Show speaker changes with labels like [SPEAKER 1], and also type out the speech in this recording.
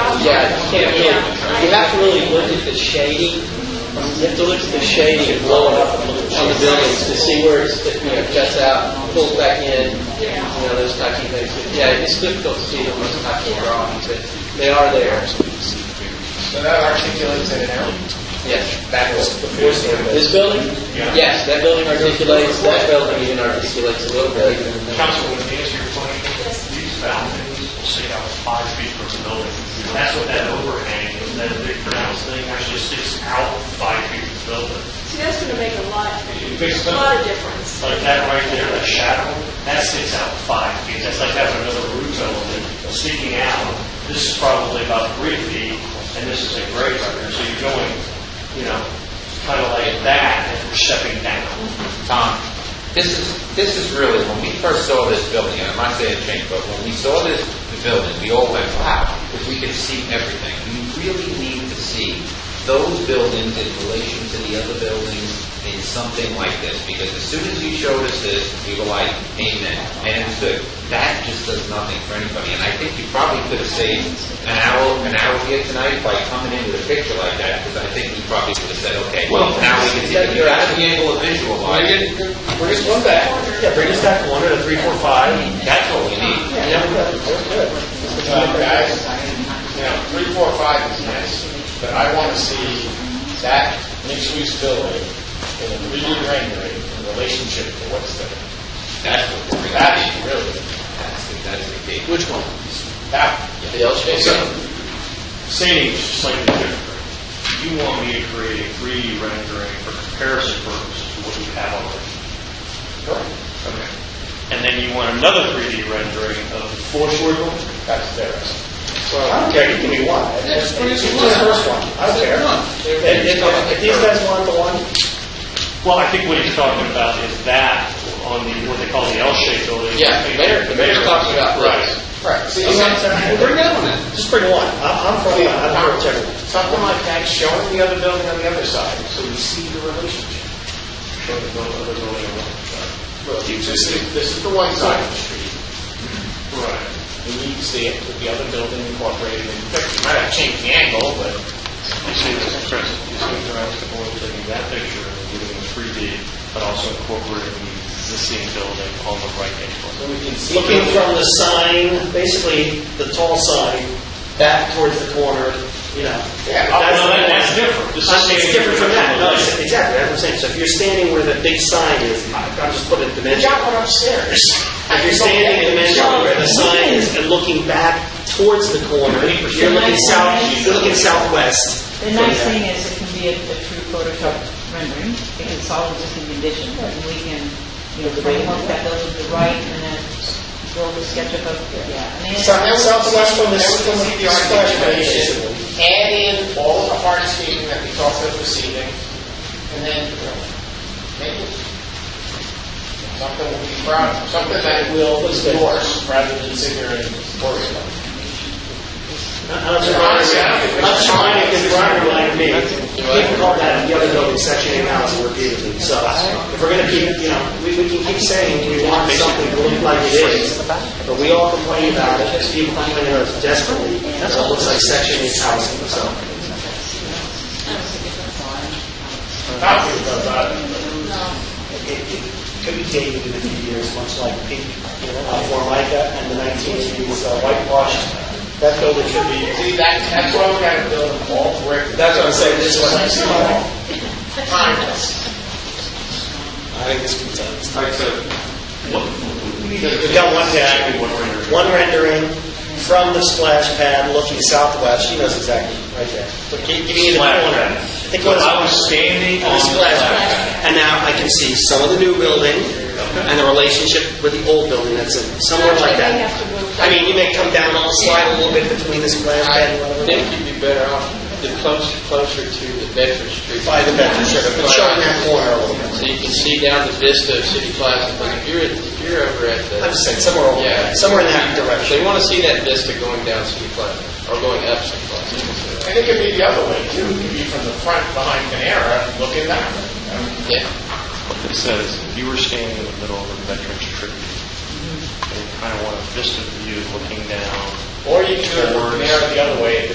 [SPEAKER 1] Yeah, you can't really, you have to really look at the shading, you have to look at the shading and blow it up on the buildings to see where it's, you know, juts out, pulls back in, you know, those types of things. But Yeah, it's difficult to see them on those types of drawings, but they are there.
[SPEAKER 2] So that articulates it now.
[SPEAKER 1] Yes.
[SPEAKER 2] That was before standard.
[SPEAKER 1] This building? Yes, that building articulates, that building even articulates a little bit.
[SPEAKER 3] Councilman, to answer your question, these balconies will sit out five feet from the building. That's what that overhang, is. that big pronounced thing actually sits out five feet from the building.
[SPEAKER 4] See, that's going to make a lot,
[SPEAKER 3] Makes
[SPEAKER 4] a
[SPEAKER 3] sense.
[SPEAKER 4] lot of difference.
[SPEAKER 3] Like that right there, that shadow, that sits out five feet. That's like having another roof element sticking out. This is probably about three feet, and this is a grade right here. So you're going, you know, kind of like that, and we're stepping down.
[SPEAKER 5] Tom, this is, this is really, when we first saw this building, and I'm not saying it changed, but when we saw this building, we all went, wow, because we could see everything. We really need to see those buildings in relation to the other buildings in something like this, because as soon as you showed us this, we were like, amen, and it was good. That just does nothing for anybody, and I think you probably could have saved an hour, an hour here tonight by coming in with a picture like that, because I think we probably could have said, okay, well, now we can see, that you're actually able to visualize.
[SPEAKER 1] Bring us one back. Yeah, bring us back one at a three, four, five.
[SPEAKER 5] That's what we need.
[SPEAKER 1] Yeah, we got it. We're good.
[SPEAKER 2] Uh, Guys, you know, three, four, five is nice, but I want to see that mixed-use building in a 3D rendering in relationship to what's there.
[SPEAKER 5] That's what we're
[SPEAKER 2] That
[SPEAKER 5] gonna
[SPEAKER 2] is really,
[SPEAKER 5] need. That's the key.
[SPEAKER 1] Which one?
[SPEAKER 2] that,
[SPEAKER 1] The L shape?
[SPEAKER 3] Saying it's slightly different. You want me to create a 3D rendering for comparison purposes to what we have already. Okay. And then you want another 3D rendering of the fourth story building?
[SPEAKER 2] that's theirs.
[SPEAKER 1] Well,
[SPEAKER 2] don't care, you give me one. Just the first one, I don't care.
[SPEAKER 1] If, if- if these guys want the one,
[SPEAKER 3] Well, I think what he's talking about is that on the, what they call the L-shaped building.
[SPEAKER 1] yeah, the mayor, the mayor's talking about
[SPEAKER 3] Right.
[SPEAKER 1] this.
[SPEAKER 2] Right. See,
[SPEAKER 1] Okay.
[SPEAKER 2] sometimes-
[SPEAKER 1] Well, bring that one in. Just bring one. I'm, I'm for one. I don't care whichever one.
[SPEAKER 2] Something like that, showing the other building on the other side, so we see the relationship. Show the building, other building on one side. Well, you just see, this is the one side of the street.
[SPEAKER 3] Right.
[SPEAKER 2] We need to see it with the other building incorporated in the picture. You might have changed the angle, but
[SPEAKER 3] You see this, Chris, you see what they're asking for, taking that picture and giving it 3D, but also incorporating the existing building on the right-hand corner.
[SPEAKER 2] we can see.
[SPEAKER 1] Looking from the sign, basically the tall sign, back towards the corner, you know.
[SPEAKER 2] Yeah,
[SPEAKER 3] That's, that's different. This is
[SPEAKER 1] Uh, It's different from that. No, it's-
[SPEAKER 3] saying-
[SPEAKER 1] Exactly, that's what I'm saying. So if you're standing where the big sign is, I- I'm just putting a
[SPEAKER 2] We
[SPEAKER 1] dimension.
[SPEAKER 2] got one upstairs.
[SPEAKER 1] If you're standing in the mansion where the sign is and looking back towards the corner, you're looking south, you're looking southwest.
[SPEAKER 6] The nice thing is it can be a a true Photoshop rendering. It can solve existing conditions, and we can, you know, framework that those to the right, and then build a sketchup of, yeah. I mean, it's-
[SPEAKER 2] Southwest from the, from the articulation, add in all the hardscaping that we talked about this evening, and then, you know, make it something we'll be proud of, something that will endorse rather than sit here and worry about.
[SPEAKER 1] I'm trying to Brian reminded me, people call that the other building section eight house repeatedly. So if we're going to keep, you know, we, we can keep saying we want something to look like it is, but we all complain about it, because people complain about it desperately. That's what looks like section eight housing, so.
[SPEAKER 2] Not to, but, uh,
[SPEAKER 1] Could be dated in a few years, much like pink, you know, uh, Formica and the nineteen eighties whitewash. That building should be.
[SPEAKER 2] see, that, that's why we gotta build them all brick.
[SPEAKER 1] That's what I'm saying, this is what I'm saying.
[SPEAKER 2] Timeless.
[SPEAKER 1] I think this contains.
[SPEAKER 5] All right, so
[SPEAKER 1] We've got one guy.
[SPEAKER 3] One rendering.
[SPEAKER 1] one rendering from the splash pad looking southwest. She knows exactly, right there. But give give me the
[SPEAKER 3] Splash
[SPEAKER 1] corner.
[SPEAKER 3] pad.
[SPEAKER 1] I think
[SPEAKER 3] So
[SPEAKER 1] what is-
[SPEAKER 3] I was standing on
[SPEAKER 1] the
[SPEAKER 3] the
[SPEAKER 1] splash
[SPEAKER 3] left.
[SPEAKER 1] pad. And now I can see some of the new building and the relationship with the old building that's in, somewhere like
[SPEAKER 4] They
[SPEAKER 1] that.
[SPEAKER 4] have to move.
[SPEAKER 1] I mean, you may come down on the slide a little bit between the splash pad and whatever.
[SPEAKER 2] you'd be better off, the closer, closer to the Bedford Street.
[SPEAKER 1] By the bedroom, sure, but showing that corner a little bit.
[SPEAKER 2] So you can see down the vista of City Plaza, but if you're, if you're over at the,
[SPEAKER 1] I'm just saying, somewhere over
[SPEAKER 2] Yeah.
[SPEAKER 1] there, somewhere in that
[SPEAKER 2] so
[SPEAKER 1] direction.
[SPEAKER 2] you want to see that vista going down City Plaza, or going up City Plaza. And it could be the other way too, it could be from the front behind Panera, looking that way. Yeah.
[SPEAKER 3] It says, you were standing in the middle of a veteran's tribute. And you kind of want a vista view looking down
[SPEAKER 2] Or you could do it from Panera the other way,